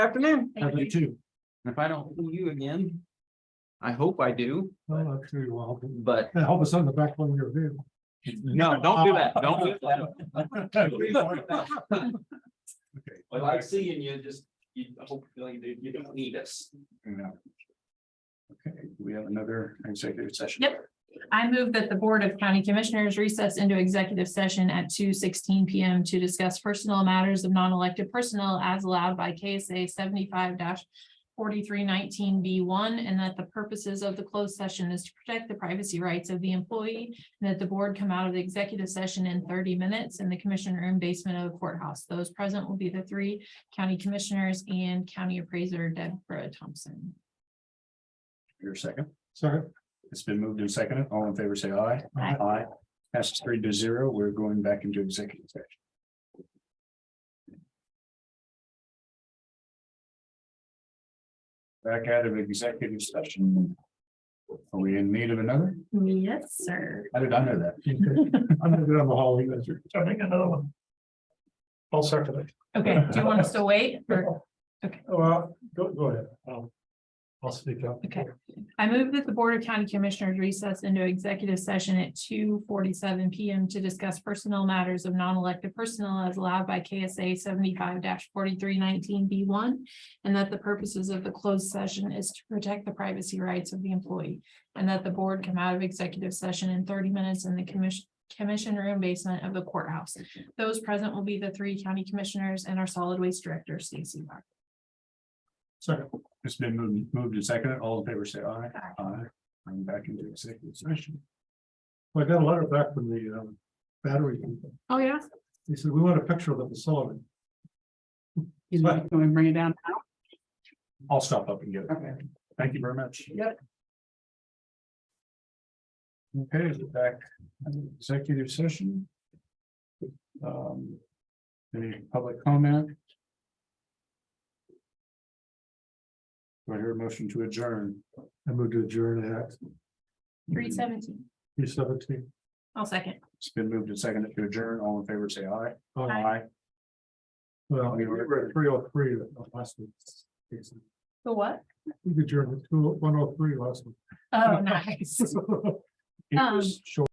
afternoon. Have you too? If I don't see you again, I hope I do, Oh, I'm sure you will. but And help us on the back one you're due. no, don't do that. Don't do that. I like seeing you, just, you, I hope you, you don't need us. Okay, we have another executive session. Yep. I move that the Board of County Commissioners recess into executive session at two sixteen P M to discuss personnel matters of non-elected personnel as allowed by KSA seventy-five forty-three nineteen B one, and that the purposes of the closed session is to protect the privacy rights of the employee, and that the board come out of the executive session in thirty minutes in the commission room basement of the courthouse. Those present will be the three county commissioners and county appraiser Deborah Thompson. Your second. Sorry. It's been moved and seconded. All in favor, say aye. Aye. Aye. Passes three to zero. We're going back into executive session. Back out of executive session. Are we in need of another? Yes, sir. How did I know that? I'm gonna go down the hall. you guys are- I think another one. I'll start with it. Okay, do you want us to wait or? Oh, Well, go, go ahead. I'll, I'll speak up. Okay. I move that the Board of County Commissioners recess into executive session at two forty-seven PM to discuss personnel matters of non-elected personnel as allowed by KSA seventy-five forty-three nineteen B one. And that the purposes of the closed session is to protect the privacy rights of the employee. And that the board come out of executive session in thirty minutes in the commission, commission room basement of the courthouse. Those present will be the three county commissioners and our solid waste director, Stacy Mark. Second. It's been moved, moved and seconded. All in favor, say aye. Aye. I'm back into executive session. I got a letter back from the um battery. people. Oh, yeah? They said, we want a picture of the facility. You know, can we bring it down? I'll stop up and get it. Okay. Thank you very much. Yep. Okay, is it back, in executive session. Um. Any public comment? Do I hear a motion to adjourn? I moved to adjourn at Three seventeen. three seventeen. I'll second. It's been moved and seconded to adjourn. All in favor, say aye. Aye. Well, we were at three oh three last week. The what? We adjourned at two, one oh three last week. Oh, nice. It Um, was short.